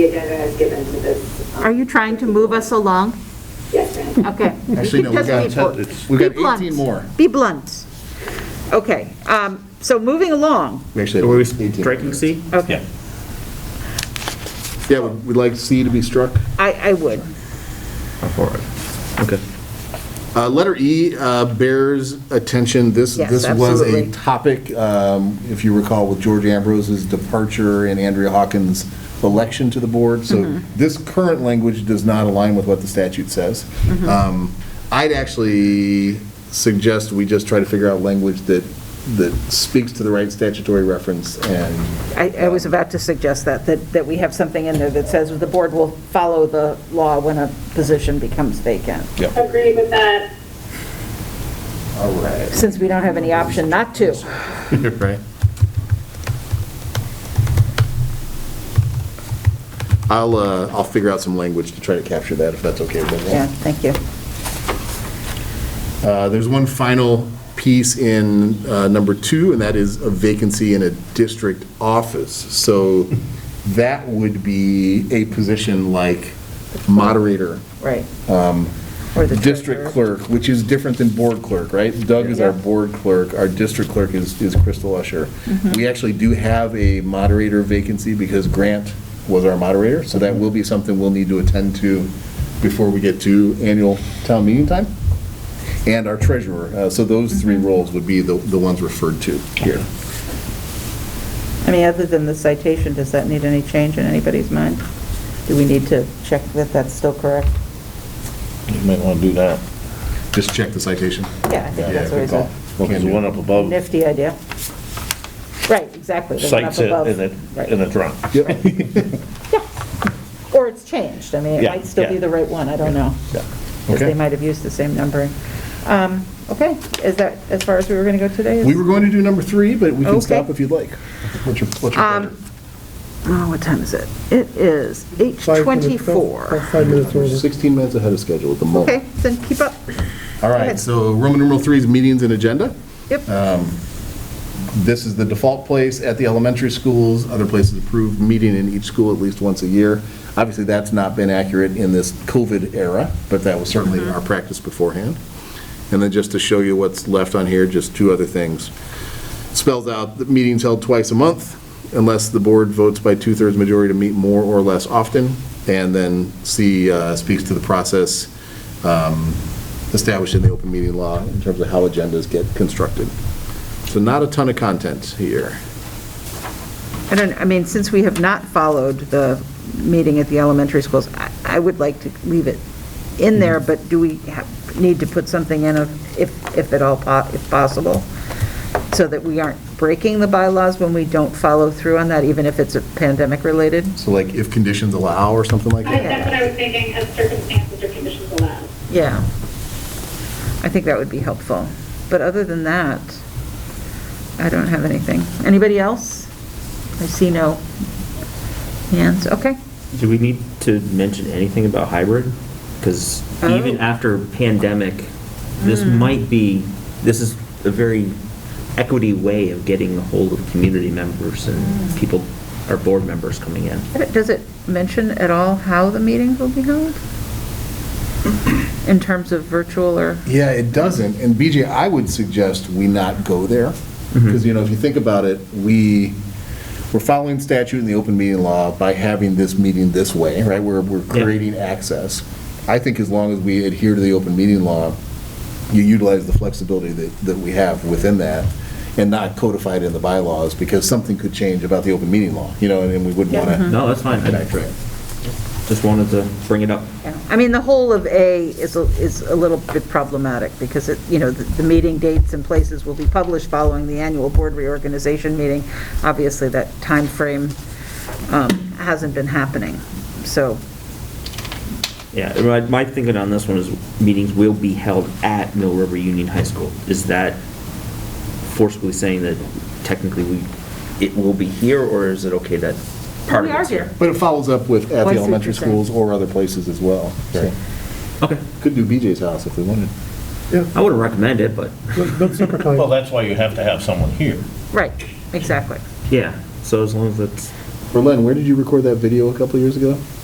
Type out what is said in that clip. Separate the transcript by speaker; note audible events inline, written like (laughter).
Speaker 1: state vendor has given to this. um,
Speaker 2: Are you trying to move us along?
Speaker 1: Yes, ma'am.
Speaker 2: Okay.
Speaker 3: (laughs) Actually, no, we
Speaker 2: Just
Speaker 3: got
Speaker 2: people.
Speaker 3: 10 it's- we got
Speaker 2: Be blunt.
Speaker 3: 18 more.
Speaker 2: Be blunt. Okay, um, so moving along,
Speaker 3: We actually
Speaker 4: So
Speaker 3: have
Speaker 4: were we
Speaker 3: 18.
Speaker 4: striking C?
Speaker 2: okay,
Speaker 3: Yeah, would we like C to be struck?
Speaker 2: I, I would.
Speaker 3: Okay. Uh, Letter E uh, bears attention. This,
Speaker 2: Yes,
Speaker 3: this was a
Speaker 2: absolutely.
Speaker 3: topic, um, if you recall, with George Ambrose's departure and Andrea Hawkins' election to the board.
Speaker 2: Mm-hmm.
Speaker 3: So this current language does not align with what the statute says.
Speaker 2: Mm-hmm.
Speaker 3: Um, I'd actually suggest we just try to figure out language that, that speaks to the right statutory reference and
Speaker 2: I, I was about to suggest that, that, that we have something in there that says the board will follow the law when a position becomes vacant,
Speaker 1: Agree with that.
Speaker 3: All right.
Speaker 2: since we don't have any option not to.
Speaker 4: Right.
Speaker 3: I'll, uh, I'll figure out some language to try to capture that, if that's okay with everyone.
Speaker 2: Yeah, thank you.
Speaker 3: Uh, There's one final piece in uh, number two, and that is a vacancy in a district office. So that would be a position like moderator,
Speaker 2: Right. Or the
Speaker 3: Um, district
Speaker 2: treasurer.
Speaker 3: clerk, which is different than board clerk, right? Doug is our board clerk, our district clerk is is Crystal Usher.
Speaker 2: Mm-hmm.
Speaker 3: We actually do have a moderator vacancy because Grant was our moderator, so that will be something we'll need to attend to before we get to annual town meeting time, and our treasurer. Uh, So those
Speaker 2: Mm-hmm.
Speaker 3: three roles would be the the ones referred to here.
Speaker 2: I mean, other than the citation, does that need any change in anybody's mind? Do we need to check that that's still correct?
Speaker 5: You might want to do that.
Speaker 3: Just check the citation.
Speaker 2: Yeah, I think
Speaker 3: Yeah,
Speaker 2: that's
Speaker 3: good
Speaker 2: always
Speaker 3: call.
Speaker 2: a
Speaker 5: Well, there's one up above
Speaker 2: nifty idea. Right, exactly. the one up
Speaker 5: cites it
Speaker 2: above.
Speaker 5: and it,
Speaker 2: Right.
Speaker 5: and it's wrong.
Speaker 2: Or it's changed, I mean, it
Speaker 5: Yeah,
Speaker 2: might still be
Speaker 5: yeah.
Speaker 2: the right one, I don't know. Because
Speaker 3: Okay.
Speaker 2: they might have used the same numbering. Um, Okay, is that as far as we were going to go today?
Speaker 3: We were going to do number three, but we can
Speaker 2: Okay.
Speaker 3: stop if you'd like. What's your what's your pleasure?
Speaker 2: Um, Oh, what time is it? It is
Speaker 6: Five minutes, about-
Speaker 2: 8:24.
Speaker 6: about Five minutes
Speaker 3: We're
Speaker 6: over.
Speaker 3: 16 minutes ahead of schedule at the moment.
Speaker 2: Okay, then keep up.
Speaker 3: All right,
Speaker 2: ahead.
Speaker 3: so Roman numeral three is meetings and agenda. Um,
Speaker 2: Yep.
Speaker 3: This is the default place at the elementary schools. Other places approve meeting in each school at least once a year. Obviously, that's not been accurate in this COVID era, but that was certainly our practice beforehand. And then just to show you what's left on here, just two other things. Spells out that meetings held twice a month unless the board votes by two-thirds majority to meet more or less often. And then C uh, speaks to the process um, established in the open meeting law in terms of how agendas get constructed. So not a ton of content here.
Speaker 2: I don't, I mean, since we have not followed the meeting at the elementary schools, I- I would like to leave it in there, but do we ha- need to put something in of, if, if at all, po- if possible, so that we aren't breaking the bylaws when we don't follow through on that, even if it's pandemic-related?
Speaker 3: So like if conditions allow or something like
Speaker 1: I-
Speaker 3: that?
Speaker 1: That's what I was thinking, as circumstances or conditions allow.
Speaker 2: Yeah. I think that would be helpful. But other than that, I don't have anything. Anybody else? I see no hands. Okay.
Speaker 4: Do we need to mention anything about hybrid? Because even
Speaker 2: Oh. Hmm.
Speaker 4: after pandemic, this might be, this is a very equity way of getting a hold of community members
Speaker 2: Hmm.
Speaker 4: and people, our board members coming in.
Speaker 2: Does it mention at all how the meetings will be held? In terms of virtual or,
Speaker 3: Yeah, it doesn't. And BJ, I would suggest we not go there.
Speaker 4: Mm-hmm.
Speaker 3: Because, you know, if you think about it, we, we're following statute and the open meeting law by having this meeting this way, right? We're, we're
Speaker 4: Yeah.
Speaker 3: creating access. I think as long as we adhere to the open meeting law, you utilize the flexibility that, that we have within that and not codify it in the bylaws because something could change about the open meeting law, you know, and- and we wouldn't want
Speaker 2: Mm-hmm.
Speaker 3: to.
Speaker 4: No, that's fine. Just wanted to bring it up.
Speaker 2: I mean, the whole of A is, a- is a little bit problematic because it, you know, the, the meeting dates and places will be published following the annual board reorganization meeting. Obviously, that timeframe, um, hasn't been happening. So,
Speaker 4: Yeah, and my, my thinking on this one is meetings will be held at Mill River Union High School. Is that forcibly saying that technically we, it will be here, or is it okay that part
Speaker 2: We
Speaker 4: of
Speaker 2: are
Speaker 4: it's here?
Speaker 2: here.
Speaker 3: But it follows up with at
Speaker 2: Oh, I see what
Speaker 3: the
Speaker 2: you're
Speaker 3: elementary
Speaker 2: saying.
Speaker 3: schools or other places as well. so.
Speaker 4: Okay,
Speaker 3: Could do BJ's house if we wanted.
Speaker 4: I wouldn't recommend it, but,
Speaker 6: But but supper time.
Speaker 5: Well, that's why you have to have someone here.
Speaker 2: right, exactly.
Speaker 4: yeah, so as long as that's
Speaker 3: Berlin, where did you record that video a couple years ago?